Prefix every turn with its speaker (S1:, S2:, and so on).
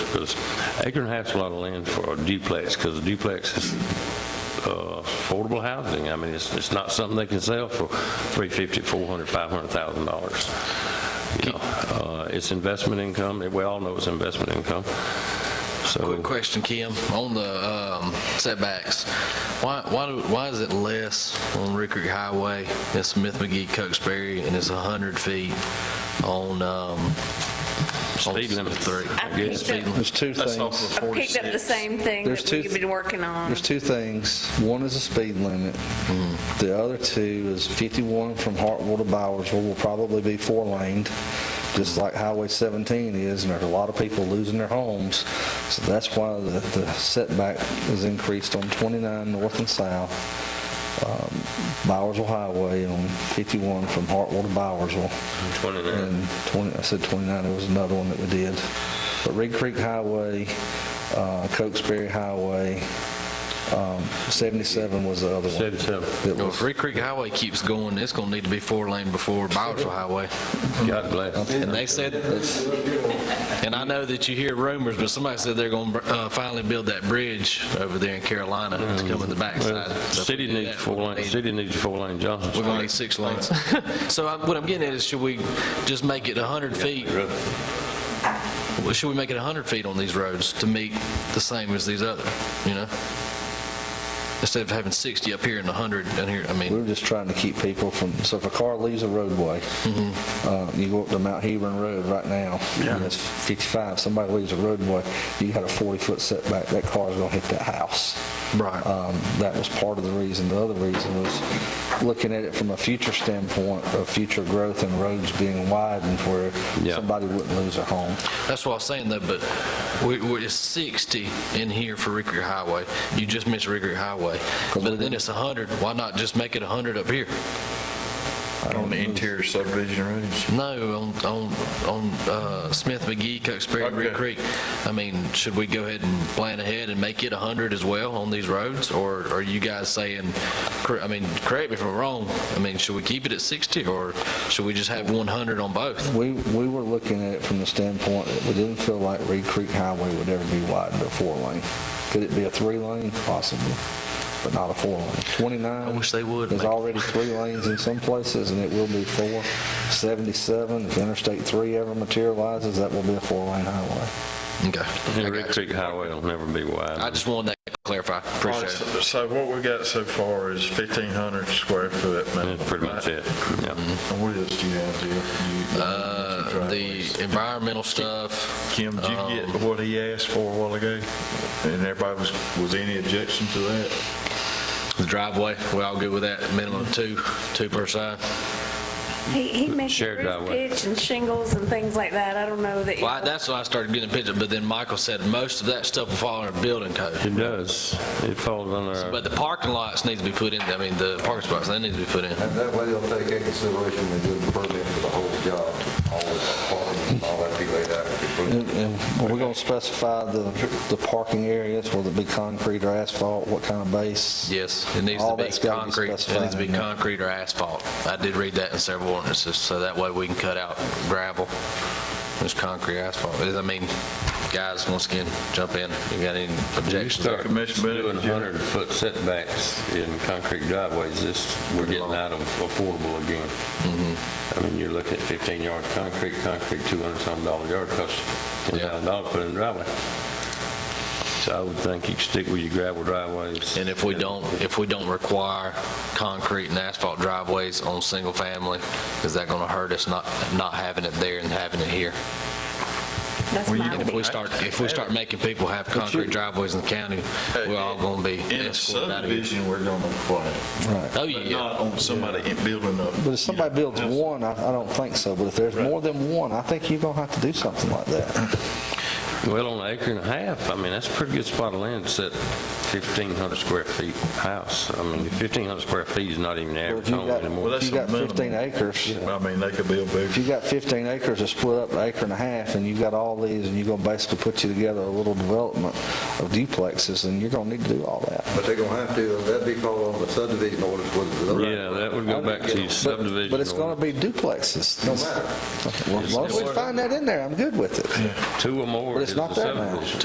S1: Because acre and a half's a lot of land for a duplex, because a duplex is uh, affordable housing. I mean, it's, it's not something they can sell for 350, 400, 500,000 dollars. You know, uh, it's investment income, we all know it's investment income,
S2: Quick
S1: so.
S2: question, Kim, on the um, setbacks, why, why, do- why is it less on Rick Creek Highway, it's Smith McGee, Cokesbury, and it's 100 feet on, um...
S1: Speed limit.
S2: Three.
S1: I guess.
S3: picked up-
S4: There's two
S1: That's off
S4: things.
S1: of
S3: I picked up the
S1: 46.
S3: same thing
S4: There's
S3: that
S4: two
S3: we've
S4: th-
S3: been working on.
S4: There's two things. One is the speed limit. The other two is 51 from Hartwell to Bowersville will probably be four laned, just like Highway 17 is, and there's a lot of people losing their homes. So that's why the the setback is increased on 29 north and south, um, Bowersville Highway on 51 from Hartwell to Bowersville.
S1: 29.
S4: And 20, I said 29, there was another one that we did. But Red Creek Highway, uh, Cokesbury Highway, um, 77 was the other one.
S1: 77.
S4: that
S2: Well,
S4: was-
S2: if Rick Creek Highway keeps going, it's gonna need to be four lane before Bowersville Highway.
S1: God bless.
S2: And they said, and I know that you hear rumors, but somebody said they're gonna uh, finally build that bridge over there in Carolina, it's coming the backside.
S1: Well,
S2: So if we
S1: City
S2: do
S1: needs
S2: that,
S1: four
S2: we'll
S1: lane,
S2: need-
S1: city needs four lane Johnson
S2: We're
S1: Street.
S2: going to need six lanes. So I- what I'm getting at is, should we just make it 100 feet? Well, Should we make it 100 feet on these roads to meet the same as these other, you know? Instead of having 60 up here and 100 down here, I
S4: We
S2: mean,
S4: were just trying to keep people from, so if a car leaves a roadway, uh, you go up to Mount Hebron Road right now, and it's 55, somebody leaves a roadway, you got a 40-foot setback, that car's gonna hit that house.
S2: Right.
S4: Um, That was part of the reason. The other reason was looking at it from a future standpoint of future growth and roads being widened where
S1: Yeah.
S4: somebody wouldn't lose their home.
S2: that's what I was saying though, but we, we- it's 60 in here for Rick Creek Highway. You just missed Rick Creek Highway. But then it's 100, why not just make it 100 up here?
S5: On the interior subdivision roads?
S2: No, on, on, on uh, Smith McGee, Cokesbury, and Red
S5: Okay.
S2: Creek. I mean, should we go ahead and plan ahead and make it 100 as well on these roads? Or are you guys saying, cor- I mean, correct me if I'm wrong, I mean, should we keep it at 60 or should we just have 100 on both?
S4: We, we were looking at it from the standpoint that we didn't feel like Reed Creek Highway would ever be widened to a four lane. Could it be a three lane? Possibly, but not a four lane. 29.
S2: I wish they would
S4: There's
S2: make it-
S4: already three lanes in some places and it will be four. 77, if Interstate 3 ever materializes, that will be a four lane highway.
S2: Okay. I
S1: And Red
S2: got you.
S1: Creek Highway will never be wide.
S2: I just wanted that clarified. Appreciate it.
S5: So what we got so far is 1,500 square foot. minimum,
S1: That's pretty much
S5: right?
S1: it,
S2: Mm-hmm.
S1: yeah.
S5: And what else do you have there? You-
S2: Uh,
S5: driveways.
S2: The environmental stuff.
S5: Kim, did you
S2: um,
S5: get what he asked for a while ago? And everybody was, was any objection to that?
S2: The driveway, we all good with that, minimum of two, two per side?
S3: He, he mentioned
S1: Shared
S3: roof
S1: driveway.
S3: pitch and shingles and things like that. I don't know that.
S2: Well, I- that's when I started getting a picture, but then Michael said most of that stuff will fall under building code.
S1: It does, it falls under our.
S2: But the parking lots need to be put in, I mean, the parking spots, they need to be put in.
S6: And that way they'll take into consideration the good permit for the whole job, all the apartments, all that be laid out.
S4: And- And we're going to specify the, the parking areas, whether it be concrete or asphalt, what kind of base.
S2: Yes, it needs to
S4: All
S2: be
S4: that's gotta be
S2: concrete, it needs to be
S4: specified, yeah.
S2: concrete or asphalt. I did read that in several ordinances, so that way we can cut out gravel, there's concrete, asphalt. I mean, guys, once again, jump in, you got any objections?
S1: Start
S5: Commissioner Bennett,
S1: doing
S5: did you-
S1: 100-foot setbacks in concrete driveways, this, we're getting out of affordable again.
S5: Mm-hmm.
S1: I mean, you're looking at 15 yard concrete, concrete 200 some dollar yard costs $10,000 put in the driveway. So I would think you could stick with your gravel driveways.
S2: And if we don't, if we don't require concrete and asphalt driveways on single family, is that gonna hurt us not, not having it there and having it here?
S3: That's my
S2: And if we start, if we start making people have concrete driveways in the county, we're all gonna be
S5: In a
S2: escorted out of here.
S5: subdivision, we're gonna apply it,
S4: Right.
S2: Oh,
S5: but
S2: yeah,
S5: not on somebody in- building up.
S4: But if somebody builds one, I, I don't think so, but if there's more than one, I think you're going to have to do something like that.
S1: Well, on an acre and a half, I mean, that's a pretty good spot of land to set 1,500 square feet house. I mean, 1,500 square feet is not even the
S4: Well,
S1: average
S4: if you
S1: home
S4: got,
S1: anymore.
S5: Well,
S4: if
S5: that's
S4: you got
S5: the minimum.
S4: 15 acres,
S5: I mean, they could build
S4: if
S5: bigger.
S4: you got 15 acres, it's split up to acre and a half, and you got all these, and you're gonna basically put you together a little development of duplexes, and you're gonna need to do all that.
S6: But they're gonna have to, that'd be called on the subdivision orders, was it?
S1: Yeah, that would go back to your
S4: But-
S1: subdivision.
S4: But it's gonna be duplexes.
S6: No matter.
S4: As long as we find that in there, I'm good with it.
S1: Two or more
S4: but
S1: is
S4: it's
S1: the
S4: not that much.
S1: subdivision.